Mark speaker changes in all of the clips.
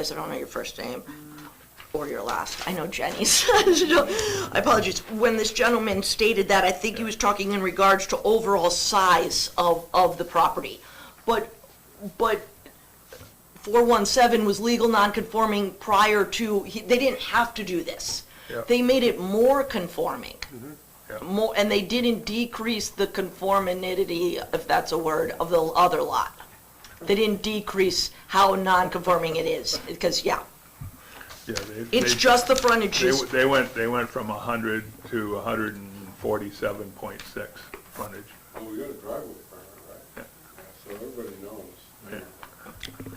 Speaker 1: guys, "Oh, I don't know your first name or your last. I know Jenny's. So, I apologize. When this gentleman stated that, I think he was talking in regards to overall size of, of the property. But, but 417 was legal non-conforming prior to, he- they didn't have to do this.
Speaker 2: Yeah. Mm-hmm.
Speaker 1: They made it more conforming.
Speaker 2: yeah.
Speaker 1: More, and they didn't decrease the conformity, if that's a word, of the other lot. They didn't decrease how non-conforming it is, because, yeah,
Speaker 2: Yeah, they-
Speaker 1: it's
Speaker 2: they-
Speaker 1: just the
Speaker 2: They,
Speaker 1: frontages.
Speaker 2: they went, they went from hundred to hundred and forty-seven point six frontage.
Speaker 3: And we got a driveway permit, right? So everybody knows.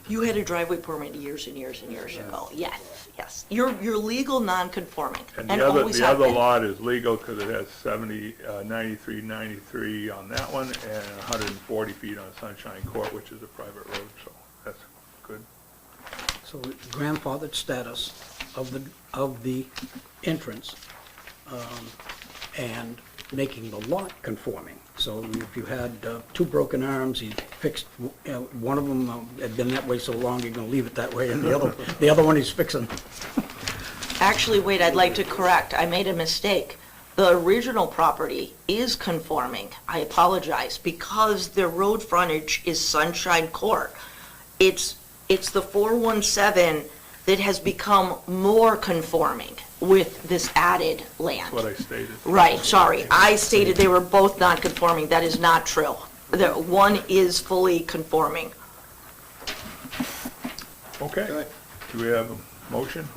Speaker 1: You had a driveway permit years and years and years ago, yes, yes. You're, you're legal non-conforming,
Speaker 2: And
Speaker 1: and
Speaker 2: the other,
Speaker 1: always
Speaker 2: the
Speaker 1: have
Speaker 2: other
Speaker 1: been.
Speaker 2: lot is legal because it has seventy, uh, ninety-three, ninety-three on that one and hundred and forty feet on Sunshine Court, which is a private road, so that's good.
Speaker 4: So the grandfathered status of the, of the entrance, um, and making the lot conforming. So if you had uh, two broken arms, you fixed, you know, one of them um, had been that way so long, you're gonna leave it that way, and the other, the other one he's fixing.
Speaker 1: Actually, wait, I'd like to correct, I made a mistake. The original property is conforming, I apologize, because the road frontage is Sunshine Court. It's, it's the 417 that has become more conforming with this added land.
Speaker 2: That's what I stated.
Speaker 1: Right, sorry, I stated they were both non-conforming, that is not true. That one is fully conforming.
Speaker 2: Okay. Do we have a motion?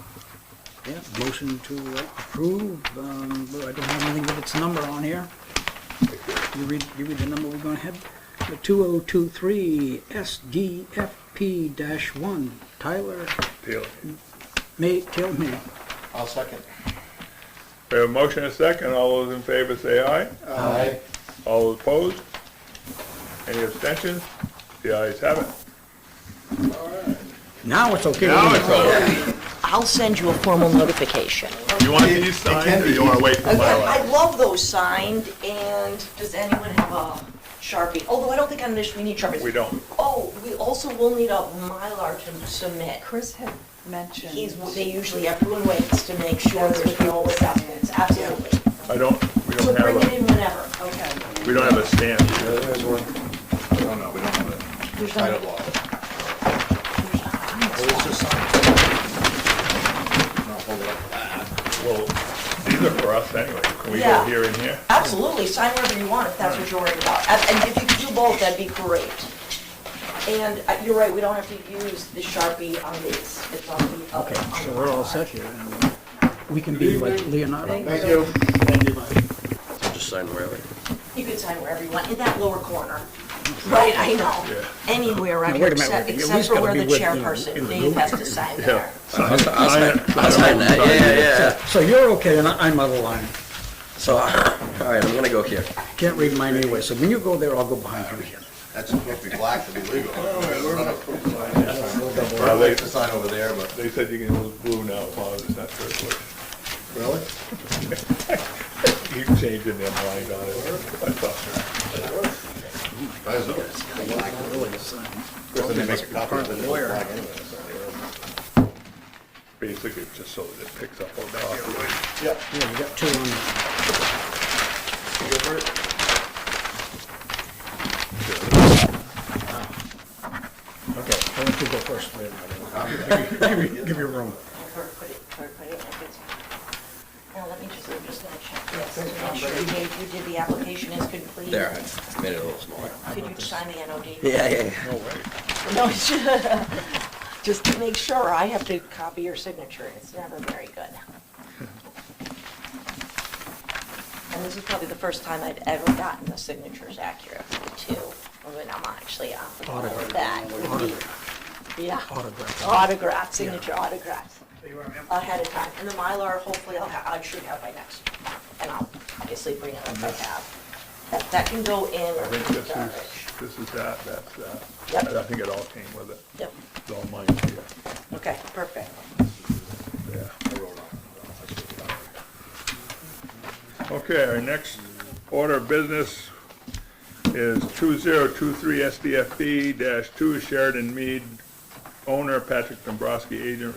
Speaker 4: Yeah, motion to uh, approve, um, but I don't have anything with its number on here. You read, you read the number we're gonna have? The two oh two three SDFP dash one, Tyler
Speaker 2: Taylor.
Speaker 4: May, tell me.
Speaker 3: I'll second.
Speaker 2: We have a motion and a second. All those in favor say aye.
Speaker 3: Aye.
Speaker 2: All opposed? Any abstentions? The ayes have it.
Speaker 4: Now it's okay.
Speaker 2: Now it's over.
Speaker 1: I'll send you a formal notification.
Speaker 2: You want these signed or you want to wait for my
Speaker 1: I
Speaker 2: lot?
Speaker 1: love those signed, and does anyone have a Sharpie? Although I don't think on this we need Sharpies.
Speaker 2: We don't.
Speaker 1: Oh, we also will need a Mylar to submit.
Speaker 5: Chris had mentioned.
Speaker 1: He's, they usually, everyone waits to make sure there's no acceptance, absolutely.
Speaker 2: I don't, we
Speaker 1: So
Speaker 2: don't
Speaker 1: bring it
Speaker 2: have
Speaker 1: in whenever.
Speaker 5: Okay.
Speaker 2: a, we don't have a stamp.
Speaker 3: There's one. No, no, we don't have a
Speaker 1: There's not-
Speaker 3: title law.
Speaker 2: Well, these are for us anyway. Can we go
Speaker 1: Yeah.
Speaker 2: here and here?
Speaker 1: Absolutely, sign wherever you want, if that's what you're worried about. And- And if you could do both, that'd be great. And uh, you're right, we don't have to use the Sharpie on these, it's on the other.
Speaker 4: Okay,
Speaker 1: on
Speaker 4: so
Speaker 1: the
Speaker 4: we're all
Speaker 1: Mylar.
Speaker 4: set here, and we can be like Leonardo.
Speaker 3: Thank you.
Speaker 4: Thank you.
Speaker 6: Just sign wherever.
Speaker 1: You could sign wherever you want, in that lower corner. Right, I know. Anywhere, I
Speaker 4: Now, wait a minute,
Speaker 1: except,
Speaker 4: you at
Speaker 1: except
Speaker 4: least
Speaker 1: for
Speaker 4: gotta
Speaker 1: where
Speaker 4: be
Speaker 1: the
Speaker 4: with, you know, in
Speaker 1: chairperson,
Speaker 4: the
Speaker 1: Dave
Speaker 4: loop.
Speaker 1: has to sign there.
Speaker 6: I'll sign, I'll sign, I'll sign that, yeah, yeah, yeah.
Speaker 4: So you're okay, and I- I'm out of line.
Speaker 6: So, all right, I'm gonna go here.
Speaker 4: Can't read mine anyway, so when you go there, I'll go behind you.
Speaker 7: That's supposed to be black to be legal.
Speaker 2: Well,
Speaker 7: I'd
Speaker 2: they-
Speaker 7: like to sign over there, but.
Speaker 2: They said you can use blue now as long as it's not turquoise.
Speaker 7: Really?
Speaker 2: You changing their mind on it. I thought,
Speaker 7: They make a copy of it, it's black anyway.
Speaker 2: basically, just so that it picks up on that.
Speaker 4: Yeah, you got two on there.
Speaker 2: Okay.
Speaker 4: I want you to go first, Leonardo. Give you- Give you room.
Speaker 1: Or put it- or put it like it's- Now, let me just, I'm just gonna check this, to make sure, Dave, you did the application is complete.
Speaker 6: There, I made it a little smaller.
Speaker 1: Could you sign the NOD?
Speaker 6: Yeah, yeah, yeah.
Speaker 1: No, it's just to make sure, I have to copy your signature, it's never very good. And this is probably the first time I've ever gotten the signatures accurate, too, when I'm actually on the board with that. Yeah.
Speaker 4: Autograph.
Speaker 1: Autograph, signature autographs, ahead of time, and the Mylar, hopefully I'll, ha- I should have by next, and I'll obviously bring it up if I have. That, that can go in
Speaker 2: I think
Speaker 1: the
Speaker 2: this
Speaker 1: garbage.
Speaker 2: is, this is that, that's that.
Speaker 1: Yep.
Speaker 2: And I think it all came with it.
Speaker 1: Yep,
Speaker 2: It's all mine here.
Speaker 1: okay, perfect.
Speaker 2: Okay, our next order of business is 2023 SDFB-2 Sheridan Mead owner, Patrick Dombrowski, agent,